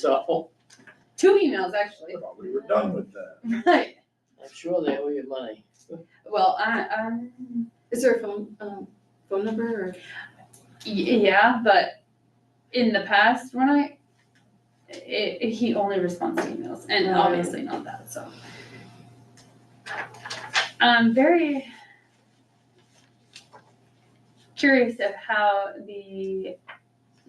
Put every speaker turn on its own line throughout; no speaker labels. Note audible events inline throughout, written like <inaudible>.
So
Two emails, actually. <laughs>
Thought We were done with that.
Right.
I'm sure they owe you money.
Well, I, um,
Is there a phone, um, phone number or?
y- yeah, but in the past, when I, i i- he only responds to emails, and
Right.
obviously not that, so. I'm very curious of how the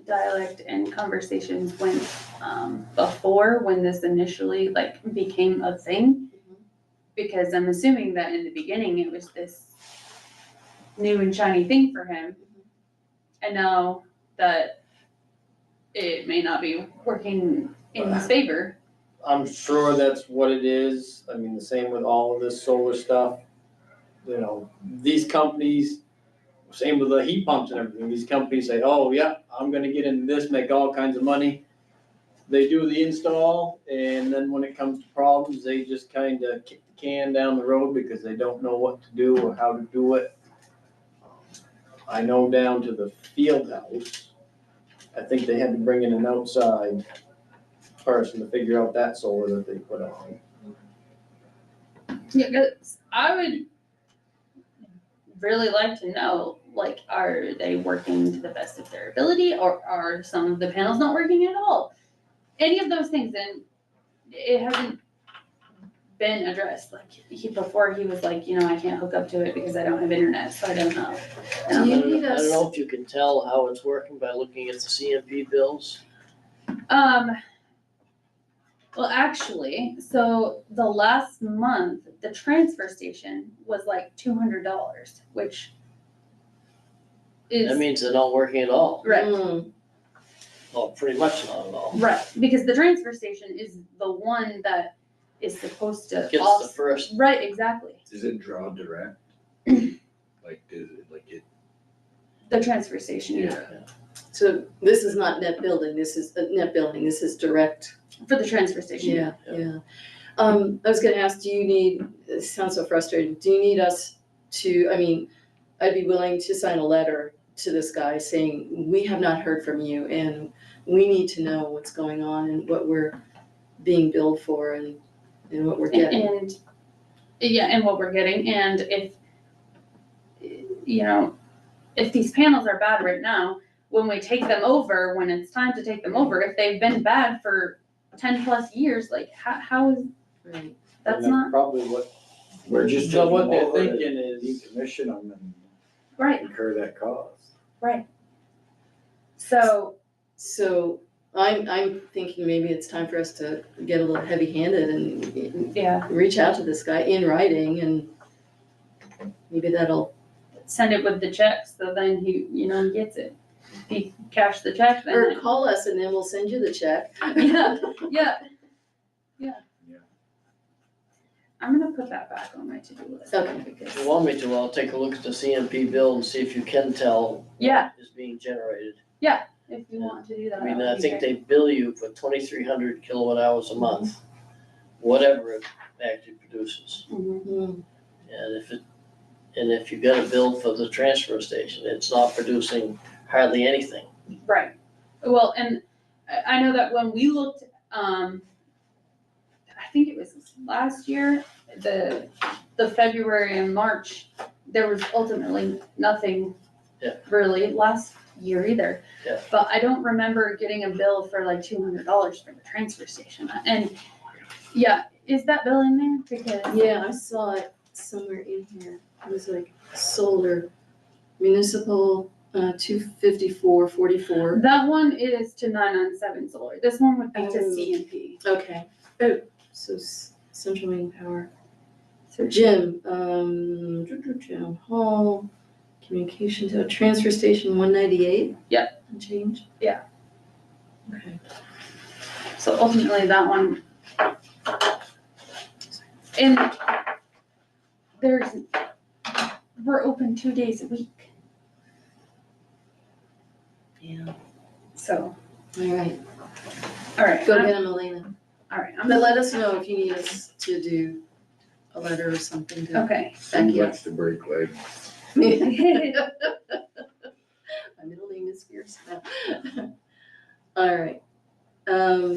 dialect and conversations went, um, before, when this initially, like, became a thing. because I'm assuming that in the beginning it was this new and shiny thing for him. And now that it may not be working in his favor.
I'm sure that's what it is. I mean, the same with all of this solar stuff. You know, these companies, same with the heat pumps and everything, these companies say, oh, yeah, I'm gonna get into this, make all kinds of money. They do the install and then when it comes to problems, they just kinda kick the can down the road because they don't know what to do or how to do it. I know down to the field house, I think they had to bring in an outside person to figure out that solar that they put on.
Yeah, 'cause I would really like to know, like, are they working to the best of their ability or are some of the panels not working at all? Any of those things and it hasn't been addressed. Like he before he was like, you know, I can't hook up to it because I don't have internet, so I don't know.
Do
Um,
you
I don't-
need
I
us-
don't know if you can tell how it's working by looking at the CMP bills.
Um, well, actually, so the last month, the transfer station was like two hundred dollars, which
That
is,
means they're not working at all,
right,
Mm,
or pretty much not at all.
right, because the transfer station is the one that is supposed to
Gets the
also,
first,
right, exactly,
Does it draw <clears throat> direct? Like, is it, like it,
the transfer station, yeah,
So this is not net building, this is, uh, net building, this is direct,
for the transfer station.
yeah, yeah. Um, I was gonna ask, do you need, it sounds so frustrating, do you need us to, I mean, I'd be willing to sign a letter to this guy saying, we have not heard from you and we need to know what's going on and what we're being billed for and, and what we're getting.
And, yeah, and what we're getting, and if, you know, if these panels are bad right now, when we take them over, when it's time to take them over, if they've been bad for ten plus years, like, how, how is,
Right.
that's
And
not
Probably what,
we're just
so
taking
what
them
they're
over to
thinking is,
decommission them
right,
and incur that cost.
so,
So I'm, I'm thinking maybe it's time for us to get a little heavy-handed and
yeah,
reach out to this guy in writing and maybe that'll,
send it with the check, so then he, you know, he gets it. He cash the check, then.
or call us and then we'll send you the check.
Yeah, yeah, yeah.
Yeah.
I'm gonna put that back on my to-do list.
Okay.
if you want me to, I'll take a look at the CMP bill and see if you can tell. what
Yeah.
Is being generated.
If you want to do that.
I mean,
that would
I
be
think
great.
they bill you for twenty-three hundred kilowatt hours a month, whatever it actually produces.
Mhm.
Hmm,
And if it, and if you got a bill for the transfer station, it's not producing hardly anything.
Right. Well, and I, I know that when we looked, um, I think it was last year, the, the February and March, there was ultimately nothing
Yeah.
really last year either.
Yeah.
But I don't remember getting a bill for like two hundred dollars for the transfer station. And, yeah, is that bill in there? Because,
Yeah, I saw it somewhere in here. It was like solar municipal, uh, two fifty-four, forty-four.
that one is to nine on seven solar. This one would be to
Oh.
C and P.
Okay. Oh, so s- central main power.
So
Gym, um, town hall, communication tower, transfer station one ninety-eight? Yep. Change?
Yeah.
Okay.
So ultimately, that one. And there's, we're open two days a week,
Yeah.
so,
All right,
all right.
go get him, Elena.
All right, I'm,
But let us know if you need us to do a letter or something to
okay.
Becky.
What's the break leg?
My
<laughs> All
<laughs> middle name is Fierce. All right. Um,